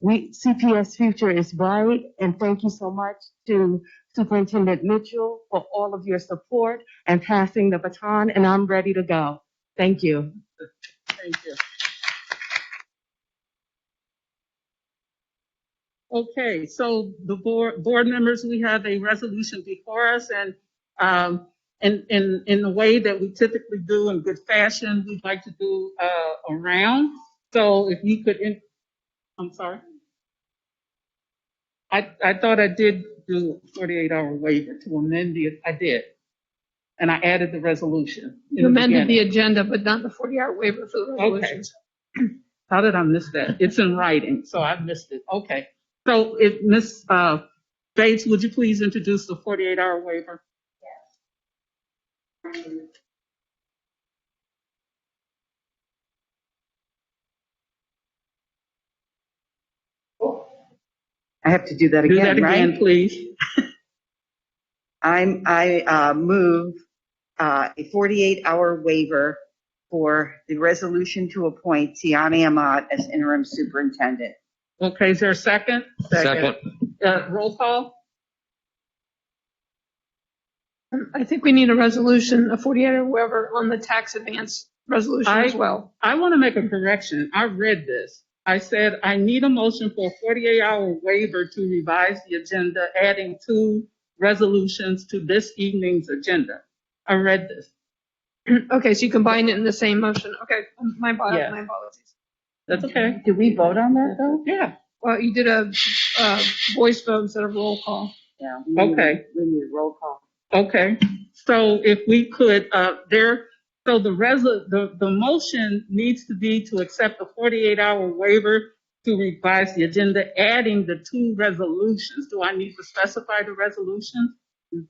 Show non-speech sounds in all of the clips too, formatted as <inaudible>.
We, CPS future is bright, and thank you so much to Superintendent Mitchell for all of your support and passing the baton, and I'm ready to go. Thank you. Thank you. Okay, so the board, board members, we have a resolution before us and, um, in, in, in the way that we typically do in good fashion, we'd like to do, uh, a round. So if you could, in- I'm sorry, I, I thought I did do a 48 hour waiver to amend the, I did. And I added the resolution in You the amended the beginning. agenda, but not the 40-hour waiver for the Okay, resolutions. how did I miss that? It's in writing, so I missed it. Okay. So if, Ms. uh, Bates, would you please introduce the 48 hour waiver? I have to do that Do that again, again, right? please. I'm, I uh, move uh, a 48-hour waiver for the resolution to appoint Tiana Ahmad as interim superintendent. Okay, is there a second? Second. Uh, roll call? I think we need a resolution, a 48-hour waiver on the tax advance resolution as I- well. <clears throat> I want to make a correction. I read this. I said, I need a motion for a 48-hour waiver to revise the agenda, adding two resolutions to this evening's agenda. I read this. Okay, so you combine it in the same motion. Okay, my Yeah. apologies, my apologies. That's okay. Did we vote on that, though? Yeah, Well, you did a, uh voice vote instead of roll call. Yeah. we need- Okay. We need a roll call. okay. So if we could, uh, there, so the resol, the, the motion needs to be to accept the 48-hour waiver to revise the agenda, adding the two resolutions. Do I need to specify the resolution? Mhm.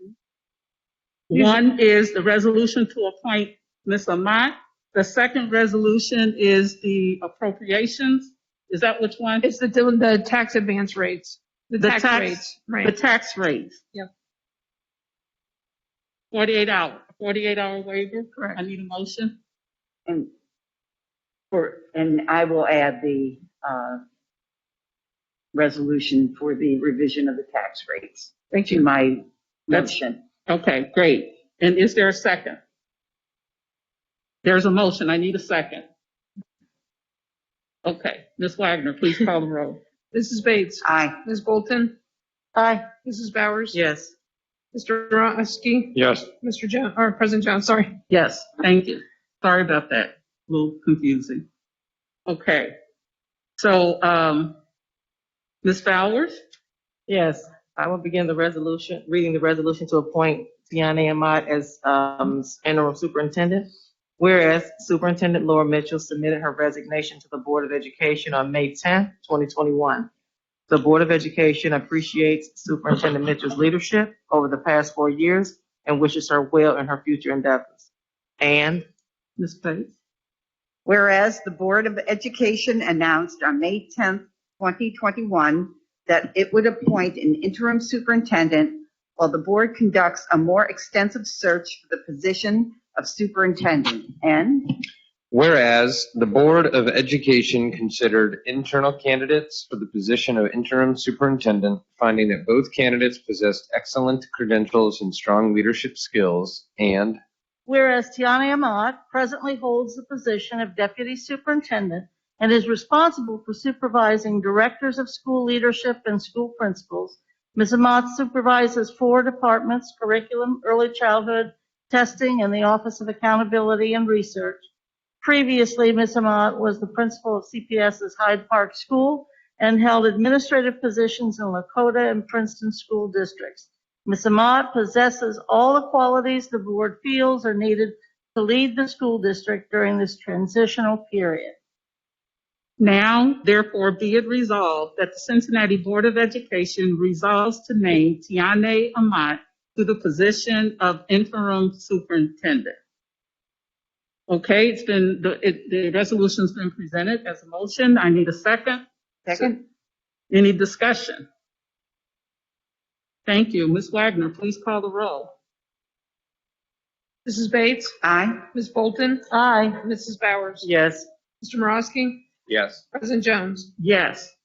Mm-hmm. One is the resolution to appoint Ms. Amat. The second resolution is the appropriations. Is that which one? It's the, the tax advance rates, the The tax tax- rates, The right? tax rates. Yeah. 48 hour, 48 hour waiver. I Correct. need a motion. And for, and I will add the uh, resolution for the revision of the tax rates. Thank To my That's- motion. Okay, great. And is there a second? There's a motion. I need a second. Okay, Ms. Wagner, please call the roll. Mrs. Bates, Aye. Ms. Bolton, Aye. Mrs. Bowers, Yes. Mr. Roski, Yes. Mr. Jones, or President Jones, sorry. Yes, thank you. Sorry about that. A little confusing. Okay. So, um, Ms. Bowers? Yes, I will begin the resolution, reading the resolution to appoint Tiana Ahmad as um, interim superintendent. Whereas Superintendent Laura Mitchell submitted her resignation to the Board of Education on May 10, 2021. The Board of Education appreciates Superintendent Mitchell's leadership over the past four years and wishes her well in her future endeavors. And Ms. Bates? Whereas the Board of Education announced on May 10th, 2021, that it would appoint an interim superintendent while the board conducts a more extensive search for the position of superintendent. And Whereas the Board of Education considered internal candidates for the position of interim superintendent, finding that both candidates possessed excellent credentials and strong leadership skills, and Whereas Tiana Ahmad presently holds the position of Deputy Superintendent and is responsible for supervising directors of school leadership and school principals. Ms. Ahmad supervises four departments, curriculum, early childhood, testing, and the Office of Accountability and Research. Previously, Ms. Ahmad was the principal of CPS's Hyde Park School and held administrative positions in Lakota and Princeton school districts. Ms. Amat possesses all the qualities the board feels are needed to lead the school district during this transitional period. Now, therefore, be it resolved that the Cincinnati Board of Education resolves to name Tiane Amat to the position of interim superintendent. Okay, it's been, the, it, the resolution's been presented as a motion. I need a second. second, Any discussion? Thank you. Ms. Wagner, please call the roll. Mrs. Bates, aye. Ms. Bolton, Aye. Mrs. Bowers, Yes. Mr. Morosky, yes. President Jones. Yes.